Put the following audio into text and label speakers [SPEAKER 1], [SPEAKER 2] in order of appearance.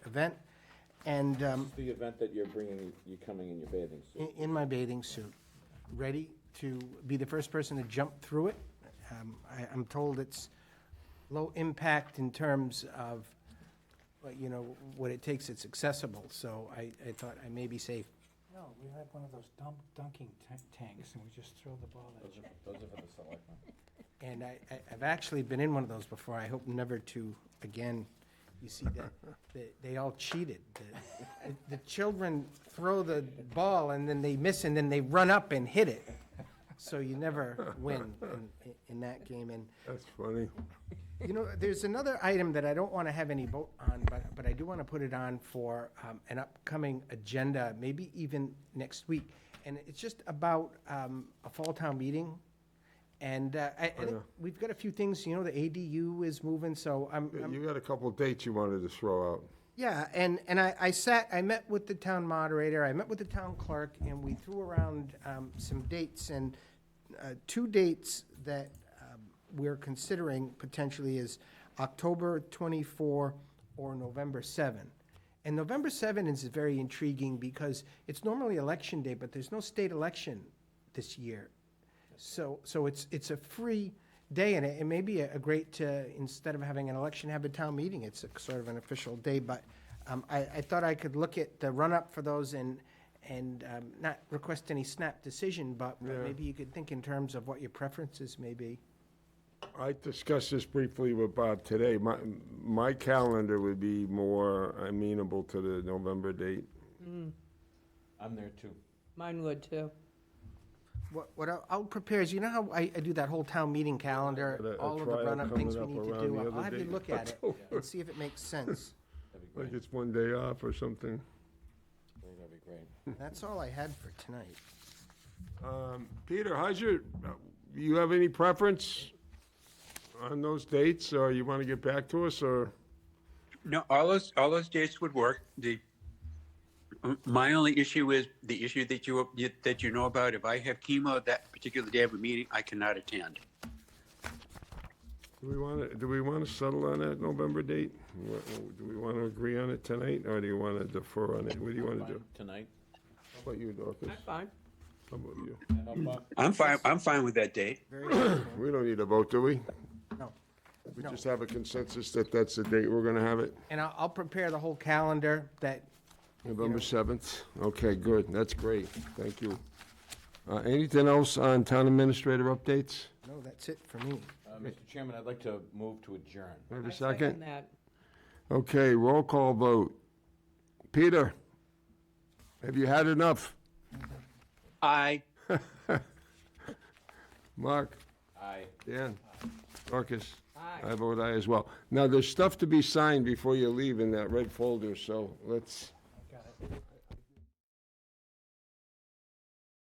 [SPEAKER 1] event. And um,
[SPEAKER 2] The event that you're bringing, you're coming in your bathing suit.
[SPEAKER 1] in, in my bathing suit, ready to be the first person to jump through it. Um, I, I'm told it's low impact in terms of, well, you know, what it takes, it's accessible, so I, I thought I may be safe.
[SPEAKER 3] No, we had one of those dump dunking ta- tanks and we just throw the ball at you.
[SPEAKER 2] Those are for the selectmen.
[SPEAKER 1] And I, I- I've actually been in one of those before, I hope never to again. You see that, that they all cheated. The- The children throw the ball and then they miss and then they run up and hit it. So you never win in, in that game. And,
[SPEAKER 4] That's funny.
[SPEAKER 1] you know, there's another item that I don't want to have any vote on, but, but I do want to put it on for um, an upcoming agenda, maybe even next week. And it's just about um, a fall town meeting. And uh, I, I think we've got a few things, you know, the ADU is moving, so I'm, I'm
[SPEAKER 4] You got a couple of dates you wanted to throw out.
[SPEAKER 1] yeah, and, and I, I sat, I met with the town moderator, I met with the town clerk, and we threw around um, some dates, and uh, two dates that um, we're considering potentially is October 24 or November 7. And November 7 is very intriguing because it's normally election day, but there's no state election this year. So, so it's, it's a free day, and it it may be a a great, to instead of having an election, have a town meeting. It's a sort of an official day, but um, I, I thought I could look at the run-up for those and, and um, not request any snap decision, but but maybe you could think in terms of what your preferences may be.
[SPEAKER 4] I discussed this briefly with Bob today. My, my calendar would be more amenable to the November date.
[SPEAKER 2] I'm there too.
[SPEAKER 5] Mine would too.
[SPEAKER 1] What, what I'll- I'll prepare is, you know how I, I do that whole town meeting calendar,
[SPEAKER 4] Got a- a
[SPEAKER 1] all of the
[SPEAKER 4] trial
[SPEAKER 1] run-up things we
[SPEAKER 4] coming
[SPEAKER 1] need
[SPEAKER 4] up
[SPEAKER 1] to
[SPEAKER 4] around the
[SPEAKER 1] do? I'll
[SPEAKER 4] other
[SPEAKER 1] have you
[SPEAKER 4] day.
[SPEAKER 1] look at it and see if it makes sense.
[SPEAKER 2] That'd be
[SPEAKER 4] Like
[SPEAKER 2] great.
[SPEAKER 4] it's one day off or something.
[SPEAKER 2] I think That'd be great.
[SPEAKER 1] That's all I had for tonight.
[SPEAKER 4] Um, Peter, how's your, uh, you have any preference on those dates, or you want to get back to us, or?
[SPEAKER 6] No, all those, all those dates would work. The, my only issue is the issue that you, that you know about. If I have chemo that particular day of a meeting, I cannot attend.
[SPEAKER 4] Do we want to, do we want to settle on that November date? Wha- Do we want to agree on it tonight, or do you want to defer on it? What do you want to do?
[SPEAKER 2] Tonight?
[SPEAKER 4] How about you, Dorcas?
[SPEAKER 5] I'm fine.
[SPEAKER 4] How about you?
[SPEAKER 2] How about-
[SPEAKER 6] I'm fine, I'm fine with that date.
[SPEAKER 1] Very good.
[SPEAKER 4] We don't need a vote, do we?
[SPEAKER 1] No.
[SPEAKER 4] We
[SPEAKER 1] No.
[SPEAKER 4] just have a consensus that that's the date we're going to have it,
[SPEAKER 1] And I'll, I'll prepare the whole calendar that
[SPEAKER 4] November 7th? Okay, good, that's great, thank you. Uh, Anything else on town administrator updates?
[SPEAKER 1] No, that's it for me.
[SPEAKER 2] Uh, Mr. Chairman, I'd like to move to adjourn.
[SPEAKER 4] Do I have
[SPEAKER 5] I
[SPEAKER 4] a second?
[SPEAKER 5] that.
[SPEAKER 4] Okay, roll call vote. Peter, have you had enough?
[SPEAKER 6] I,
[SPEAKER 4] Mark?
[SPEAKER 2] Aye.
[SPEAKER 4] Dan? Marcus?
[SPEAKER 5] Aye.
[SPEAKER 4] I vote aye as well. Now, there's stuff to be signed before you leave in that red folder, so let's,
[SPEAKER 3] Got it.